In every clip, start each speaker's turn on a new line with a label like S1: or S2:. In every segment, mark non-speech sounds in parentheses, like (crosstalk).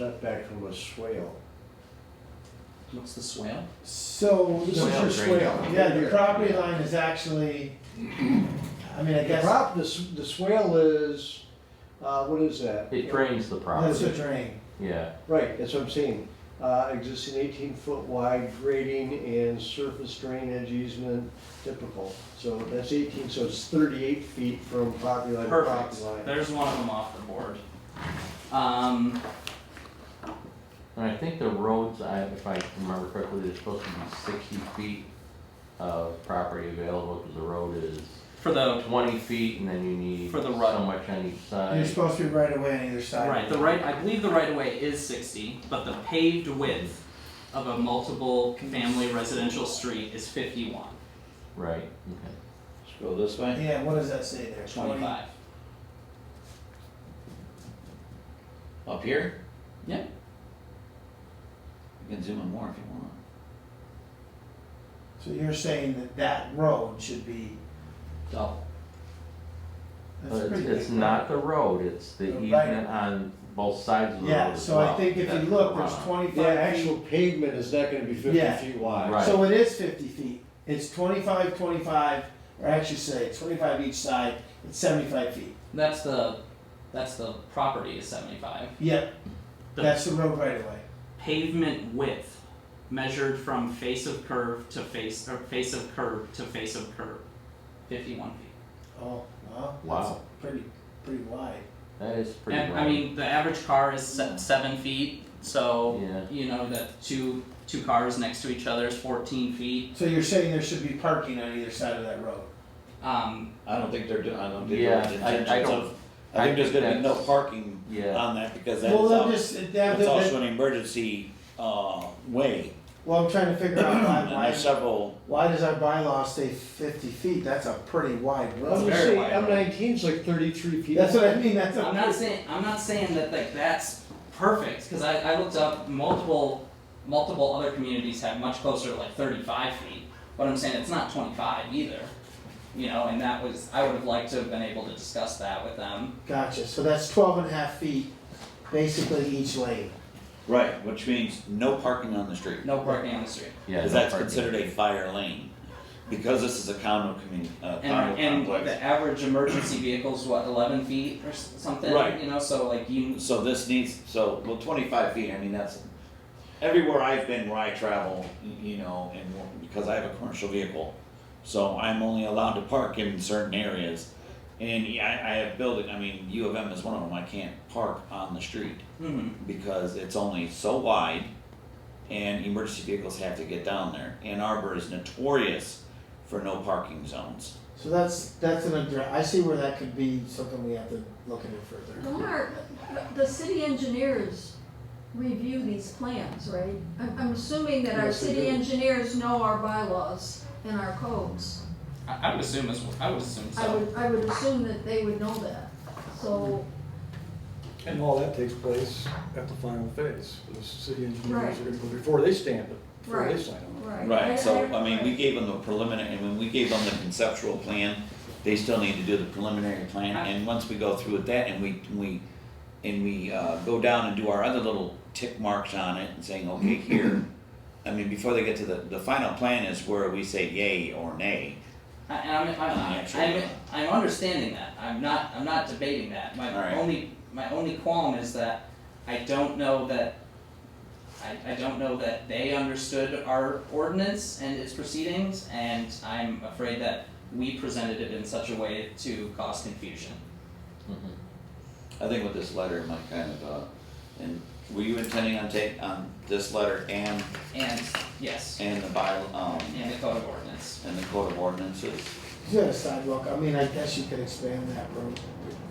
S1: setback from a swale.
S2: What's the swale?
S3: So
S1: This is
S3: the-
S4: Swale
S1: your
S4: drainage.
S1: swale.
S3: yeah, the property line is actually, I mean, I
S1: The
S3: guess
S1: prop, the, s- the swale is, uh, what is that?
S4: It drains the
S3: that's a
S4: property,
S3: drain.
S4: yeah.
S1: Right, that's what I'm saying. Uh, existing eighteen foot wide grading and surface drainage easement typical. So that's eighteen, so it's thirty-eight feet from property line to property
S2: Perfect.
S1: line.
S2: There's one of them off the board. Um,
S4: And I think the roads, I, if I remember correctly, there's supposed to be sixty feet of property available, cause the road is
S2: for the
S4: twenty feet and then you need
S2: For
S4: so
S2: the right.
S4: much on each
S3: You're
S4: side.
S3: supposed to be right away on either side.
S2: right, the right, I believe the right of way is sixty, but the paved width of a multiple family residential street is fifty-one,
S4: Right, okay.
S5: Let's go this way.
S3: Yeah, what does that say there?
S2: twenty-five.
S5: Up here?
S2: Yeah.
S5: You can zoom in more if you want.
S3: So you're saying that that road should be,
S5: Double.
S3: that's
S4: But
S3: a
S4: it's,
S3: pretty big.
S4: it's not the road, it's the
S3: The right.
S4: easement on both sides of the road
S3: Yeah,
S4: as
S3: so I
S4: well.
S3: think if you
S4: That's
S3: look,
S4: the
S3: there's
S4: runoff.
S1: The
S3: twenty-five feet.
S1: actual pavement is not gonna be fifty
S3: Yeah.
S1: feet wide.
S4: Right.
S3: So it is fifty feet, it's 25, 25, or actually say it's twenty-five each side, it's seventy-five feet.
S2: That's the, that's the property is seventy-five.
S3: Yep, that's the road right away.
S2: Pavement width measured from face of curve to face, or face of curve to face of curve, fifty-one feet.
S3: Oh, wow, that's
S4: Wow.
S3: pretty, pretty wide.
S4: That is pretty
S2: and
S4: wide.
S2: I mean, the average car is se- seven feet, so
S4: Yeah.
S2: you know that two two cars next to each other is fourteen feet.
S3: So you're saying there should be parking on either side of that road?
S2: Um,
S5: I don't think they're, do- I don't think
S4: Yeah,
S5: there's
S4: I- I
S5: intentions
S4: don't-
S5: of,
S4: I
S5: I think there's
S4: think
S5: gonna be no
S4: that's-
S5: parking
S4: Yeah,
S2: uh,
S5: on that because that's
S3: Well, I'm
S5: al-
S3: just, that, that-
S5: that's also an emergency, uh, way.
S3: well, I'm trying to figure out
S5: And (clears throat)
S3: why,
S5: there's
S3: why,
S5: several,
S3: why does our bylaw say fifty feet? That's a pretty wide
S1: I'm
S3: road.
S1: gonna
S5: Very
S1: say,
S5: wide.
S1: M nineteen's like thirty-three feet.
S3: That's what I mean, that's a.
S2: I'm not saying I'm not saying that like that's perfect because I, I looked up multiple multiple other communities have much closer to like thirty five feet, but I'm saying it's not twenty five either. You know, and that was I would have liked to have been able to discuss that with them.
S3: Gotcha, so that's twelve and a half feet, basically each lane.
S5: right, which means no parking on the street.
S2: No parking on the street.
S4: yeah.
S5: Cause
S4: no
S5: that's
S4: parking.
S5: considered a fire lane. Because this is a condo community, uh, condo
S2: And, and the
S5: complex.
S2: average emergency vehicle is what, eleven feet or s- something?
S5: Right.
S2: You know, so like you,
S5: So this needs, so, well, twenty-five feet, I mean, that's, everywhere I've been where I travel, y- you know, and, wh- because I have a commercial vehicle. So I'm only allowed to park in certain areas. And yeah, I, I have building, I mean, U of M is one of them, I can't park on the street
S2: hmm
S5: because it's only so wide and emergency vehicles have to get down there. Ann Arbor is notorious for no parking zones.
S3: So that's, that's an, addre- I see where that could be something we have to look into further.
S6: Mark, the city engineers review these plans, right? I'm, I'm assuming that our
S1: Yes, they
S6: city
S1: do.
S6: engineers know our bylaws and our codes.
S2: I, I would assume as, I would assume
S6: I
S2: so.
S6: would, I would assume that they would know that, so,
S7: And all that takes place at the final phase, the city engineers
S6: Right.
S7: are gonna go before they stamp it, before they
S6: Right.
S7: sign on.
S6: right.
S5: Right, so, I mean, we gave them the preliminary, and when we gave them the conceptual plan, they still need to do the preliminary plan, and once we go through with that, and we, we, and we, uh, go down and do our other little tick marks on it, and saying, okay, here, I mean, before they get to the, the final plan is where we say yay or nay.
S2: I, and I'm, I'm,
S5: Yeah,
S2: I'm,
S5: sure.
S2: I'm, I'm understanding that, I'm not, I'm not debating that, my
S5: Alright.
S2: only, my only qualm is that I don't know that I, I don't know that they understood our ordinance and its proceedings, and I'm afraid that we presented it in such a way to cause confusion.
S4: Mhm.
S5: I think with this letter, my kind of, uh, and were you intending on take, on this letter and,
S2: And, yes,
S5: and the by, um,
S2: and the code of ordinance.
S5: and the code of ordinances?
S3: You got a sidewalk, I mean, I guess you could expand that road,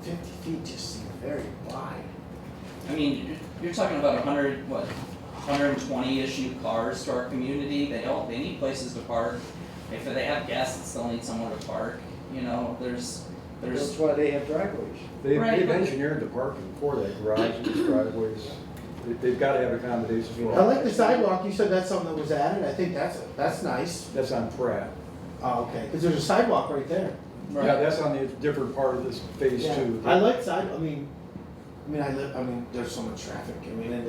S3: fifty feet just seems very wide.
S2: I mean, you're talking about a hundred, what, hundred and twenty issue cars to our community, they don't, they need places to park. If they have guests, they'll need somewhere to park, you know, there's,
S1: That's
S2: there's,
S1: why they have driveways.
S7: They,
S2: Right,
S7: they've
S2: but-
S7: engineered the parking for that garage, these driveways, they, they've gotta have accommodations for
S3: I
S7: all.
S3: like the sidewalk, you said that's something that was added, I think that's, that's nice.
S7: That's on Pratt.
S3: Oh, okay, cause there's a sidewalk right there.
S7: Yeah,
S2: right,
S7: that's on the different part of this phase
S3: Yeah.
S7: two.
S3: I like side, I mean, I mean, I live, I mean, there's so much traffic, I mean, and